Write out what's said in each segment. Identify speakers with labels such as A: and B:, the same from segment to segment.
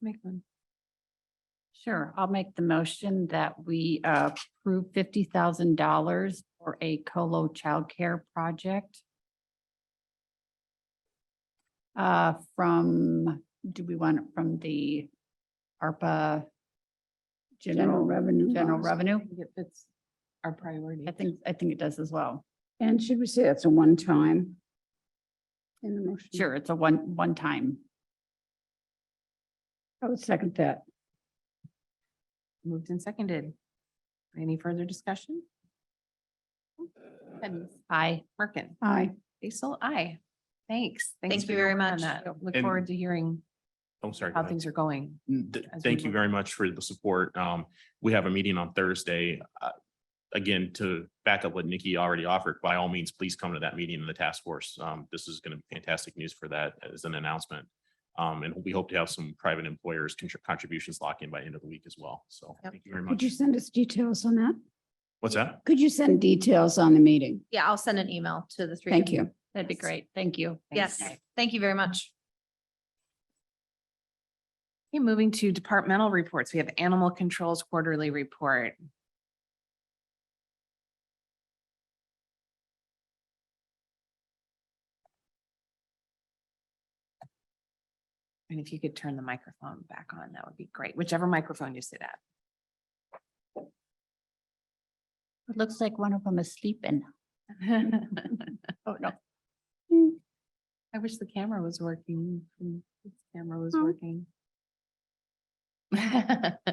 A: make one.
B: Sure, I'll make the motion that we uh, approve fifty thousand dollars for a colo childcare project. Uh, from, do we want it from the ARPA?
A: General revenue
B: General
A: funds.
B: revenue.
A: I think It fits our priority.
B: I think, I think it does as well.
C: And should we say that's a one-time? In the motion?
B: Sure, it's a one, one time.
C: I would second that.
A: Moved and seconded. Any further discussion? And
B: Aye.
A: Merkin,
C: Aye.
A: Basil, I. Thanks.
D: Thank you very
A: working on
D: much.
A: that. Look
E: And-
A: forward to hearing
E: I'm Oh, sorry. go
A: how
E: ahead.
A: things are going.
E: Mm, th-
A: as we
E: Thank you
A: look-
E: very much for the support. Um, we have a meeting on Thursday. Uh, Again, to back up what Nikki already offered, by all means, please come to that meeting in the task force. Um, this is going to be fantastic news for that as an announcement. Um, and we hope to have some private employers contr- contributions locked in by end of the week as well. So
D: Yep.
E: thank you very
C: Could
E: much.
C: you send us details on that?
E: What's that?
C: Could you send details on the meeting?
D: Yeah, I'll send an email to the three. of
C: Thank you.
B: That'd be
D: Yes.
B: great. Thank you.
D: Yes,
A: Okay,
D: thank you very much.
A: moving to departmental reports. We have Animal Control's quarterly report. And if you could turn the microphone back on, that would be great, whichever microphone you sit at.
B: It looks like one of them is sleeping. Oh, no.
A: I wish the camera was working. Mm, this Camera was
B: Hmm?
C: Oh.
A: working. Good
F: Uh,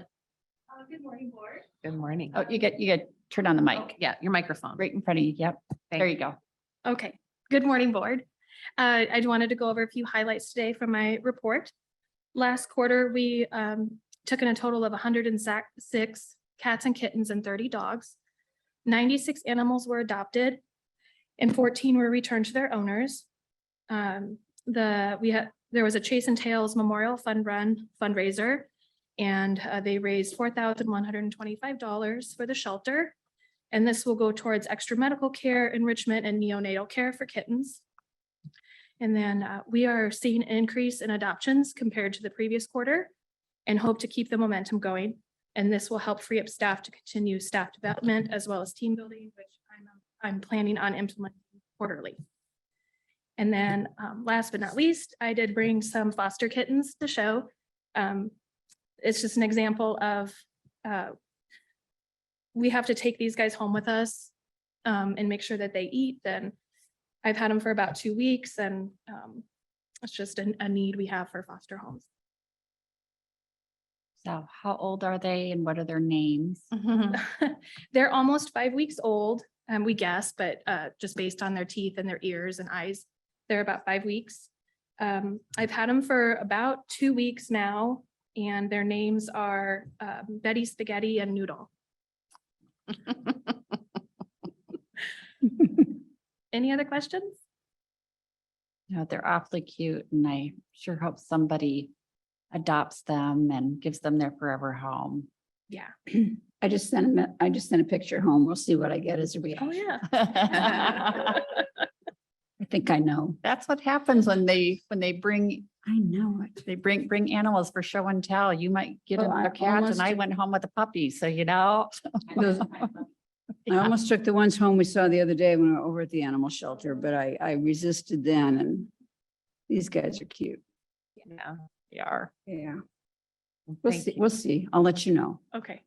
F: Good morning, Board.
A: morning.
B: Oh, you get, you get, turn on the
A: Oh,
B: mic.
A: Yeah, your microphone.
B: Right in front of you. Yep.
A: Thank
B: There you go.
F: Okay, good morning, Board. Uh, I wanted to go over a few highlights today from my report. Last quarter, we um, took in a total of 106 cats and kittens and 30 dogs. 96 animals were adopted and 14 were returned to their owners. Um, The, we had, there was a Chase and Tails Memorial Fund Run fundraiser, and uh, they raised $4,125 for the shelter. And this will go towards extra medical care, enrichment, and neonatal care for kittens. And then uh, we are seeing an increase in adoptions compared to the previous quarter and hope to keep the momentum going. And this will help free up staff to continue staff development as well as team building, which I'm, I'm planning on implementing quarterly. And then um, last but not least, I did bring some foster kittens to show. Um, It's just an example of uh, we have to take these guys home with us um, and make sure that they eat. Then I've had them for about two weeks and um, it's just a, a need we have for foster homes.
B: So how old are they and what are their names?
F: They're almost five weeks old, um, we guess, but uh, just based on their teeth and their ears and eyes, they're about five weeks. Um, I've had them for about two weeks now and their names are uh, Betty Spaghetti and Noodle. Any other questions?
B: No, they're awfully cute and I sure hope somebody adopts them and gives them their forever home.
F: Yeah.
C: I just sent a, me- I just sent a picture home. We'll see what I get as a
F: Oh,
C: reaction.
F: yeah.
B: That's
C: I think I know.
B: what happens when they, when they bring,
C: I know it.
B: they bring, bring animals for show and tell. You might get
C: Well, I
B: a cat
C: almost
B: and Oh, I
C: did-
B: went home with a puppy, so you know.
C: Those- I almost took the ones home we saw the other day when we were over at the animal shelter, but I, I resisted then and these guys are cute.
A: Yeah.
B: They are.
C: Yeah,
A: Well,
C: we'll
A: thank
C: see,
A: you.
C: we'll see. I'll let you know.
F: Okay.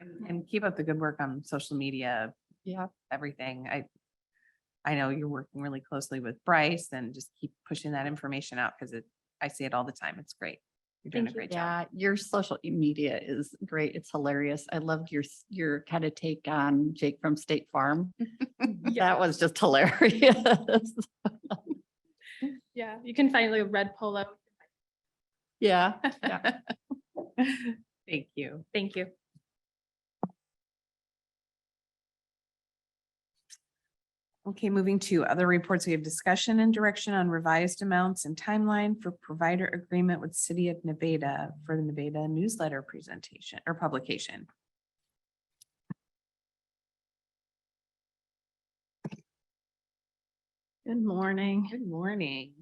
A: And- And keep up the good work on social media.
B: Yep.
A: Everything. I, I know you're working really closely with Bryce and just keep pushing that information out because it, I see it all the time. It's great. You're doing a
F: Thank you.
A: great job.
B: Yeah, your social media is great. It's hilarious. I loved your, s- your kind of take on Jake from State Farm. That was just hilarious.
F: Yeah, you can find like a red polo.
B: Yeah.
A: Thank you.
F: Thank you.
A: Okay, moving to other reports. We have discussion and direction on revised amounts and timeline for provider agreement with City of Nevada for the Nevada newsletter presentation or publication.
F: Good morning.
A: Good morning.